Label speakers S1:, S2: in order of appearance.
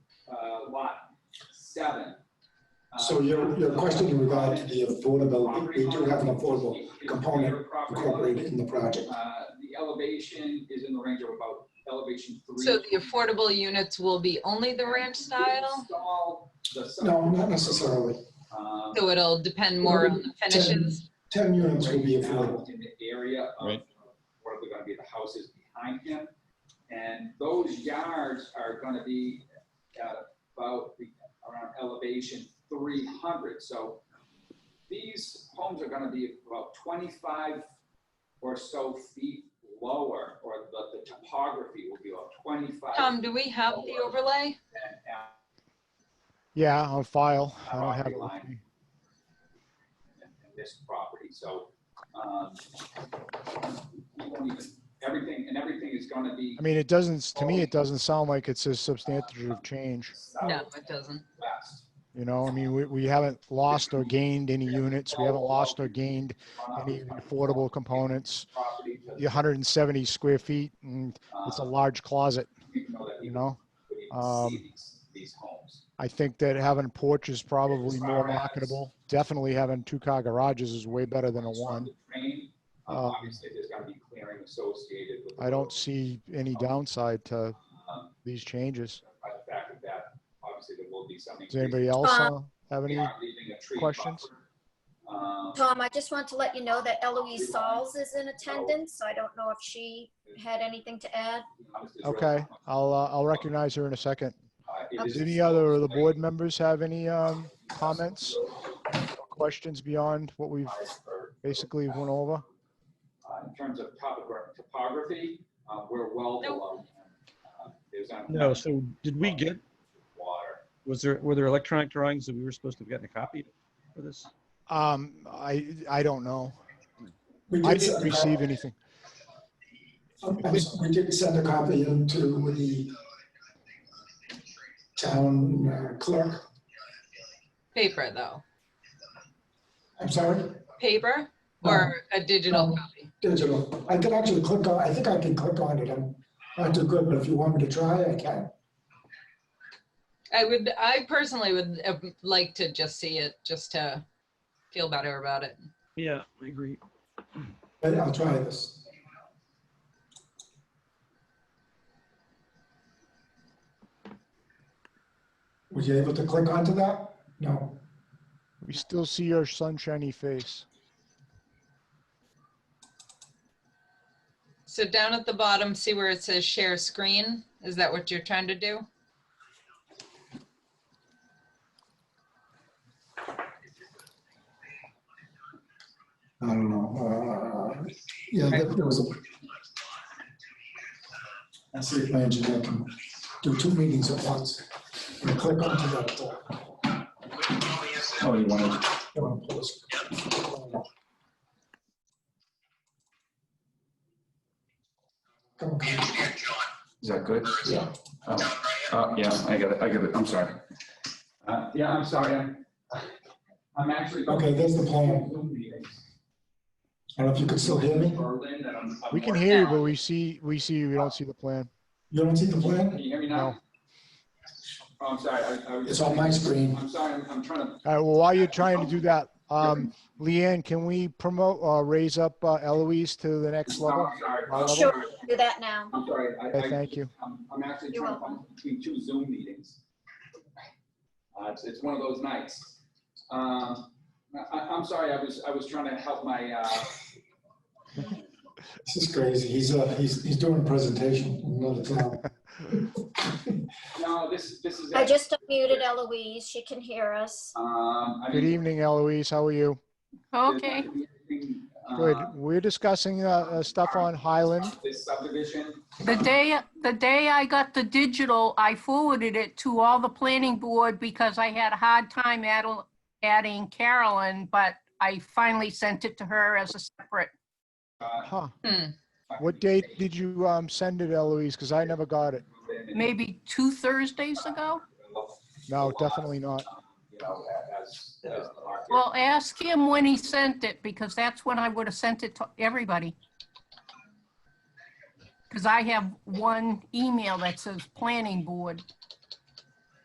S1: Uh, seven. uh,
S2: So your, your question in regard to the affordability, we do have an affordable component incorporated in the project.
S1: Uh, The elevation is in the range of about elevation three.
S3: So the affordable units will be only the ranch style?
S1: Install the sub-
S2: No, not necessarily.
S1: um,
S3: So it'll depend more on the finishes?
S2: Ten units will be
S1: right now
S2: affordable.
S1: In the area of
S4: Right.
S1: what are gonna be the houses behind him. And those yards are gonna be at about the- around elevation three hundred, so these homes are gonna be about twenty-five or so feet lower, or the, the topography will be about twenty-five.
S3: Tom, do we have the overlay?
S1: and, uh,
S4: Yeah, on file. I don't have it with
S1: Property
S4: me.
S1: and and this property, so, um, we won't even- everything, and everything is gonna be
S4: I mean, it doesn't, to me, it doesn't sound like it's a substantive change,
S3: No,
S1: southwest.
S3: it doesn't.
S4: you know? I mean, we, we haven't lost or gained any units. We haven't lost or gained any affordable components.
S1: Property to
S4: The 170 square feet, and it's a
S1: uh,
S4: large closet,
S1: you know, that we
S4: you know?
S1: couldn't even
S4: um,
S1: see these, these homes.
S4: I think that having a porch is probably more
S1: far as-
S4: marketable. Definitely having two-car garages is way better than a
S1: As far as
S4: one.
S1: the Train, uh,
S4: Um,
S1: obviously, there's gotta be clearing associated with. the
S4: I don't
S1: road,
S4: see any downside to
S1: um,
S4: these changes.
S1: By the fact that that, obviously, there will be something.
S4: Does anybody else uh, have any? questions?
S1: um,
S5: Tom, I just want to let you know that Eloise Sauls is in attendance. I don't know if she had anything to add.
S4: Okay, I'll, uh, I'll recognize her in a second. Does any other of the board members have any um, comments or questions beyond what we've basically went over?
S1: Uh, In terms of topogra- topography, uh, we're well
S3: Nope.
S1: below. uh, There's not.
S6: No, so did we get,
S1: Water.
S6: was there, were there electronic drawings that we were supposed to have gotten a copy for this?
S4: Um, I, I don't know.
S2: We
S4: I
S2: did
S4: didn't
S2: send a
S4: receive
S2: copy,
S4: anything.
S2: I'm sorry, we did send a copy into the town uh, clerk.
S3: Paper, though.
S2: I'm sorry,
S3: Paper or a digital copy?
S2: digital. I can actually click on, I think I can click on it. I'm not too good, but if you want me to try, I can.
S3: I would, I personally would uh, like to just see it, just to feel better about it.
S6: Yeah, I agree.
S2: But I'll try this. Were you able to click onto that? No.
S4: We still see your sunshiny face.
S3: So down at the bottom, see where it says share screen? Is that what you're trying to do?
S2: I don't know. Uh, Yeah, there there was a. I see if my engineer can do two meetings at once. And Click onto that. uh,
S7: Oh, you wanted,
S2: you wanna pause. Come on, come on.
S7: is that good?
S2: Yeah.
S7: Oh, oh, yeah, I got it, I got it, I'm sorry.
S1: Uh, Yeah, I'm sorry, I'm, I'm actually.
S2: Okay, there's the plan. I don't know if you can still hear me.
S1: Berlin, that I'm- I'm
S4: We can
S1: working
S4: hear you,
S1: on.
S4: but we see, we see you, we don't see the plan.
S2: You don't see the
S1: Can
S2: plan?
S1: you hear me
S4: No.
S1: now? Oh, I'm sorry, I, I was.
S2: It's on my screen.
S1: I'm sorry, I'm- I'm trying to,
S4: All right, well, while you're trying to do that, um, Leanne, can we promote, uh, raise up uh, Eloise to the next level?
S1: I'm sorry.
S4: Level?
S5: Sure, do that now.
S1: I'm sorry, I,
S4: Okay,
S1: I.
S4: thank you.
S1: I'm, I'm actually
S5: You're
S1: trying to find between two Zoom meetings. Uh, it's, it's one of those nights. Um, I, I'm sorry, I was, I was trying to help my, uh,
S2: This is crazy. He's, uh, he's, he's doing a presentation in another town.
S1: no, this, this is.
S5: I just unmuted Eloise. She can hear us.
S1: Um, I
S4: Good
S1: mean.
S4: evening, Eloise, how are you?
S1: there's not gonna be anything, uh,
S4: Good. We're discussing uh, uh, stuff on Highland.
S1: This subdivision,
S8: The day, the day I got the digital, I forwarded it to all the planning board because I had a hard time addl- adding Carolyn, but I finally sent it to her as a separate.
S1: uh.
S4: Huh.
S3: Hmm.
S4: What date did you um, send it, Eloise? Because I never got it.
S8: maybe two Thursdays ago?
S4: No, definitely not.
S1: You know, as, as the market.
S8: Well, ask him when he sent it, because that's when I would have sent it to everybody. Because I have one email that says planning board.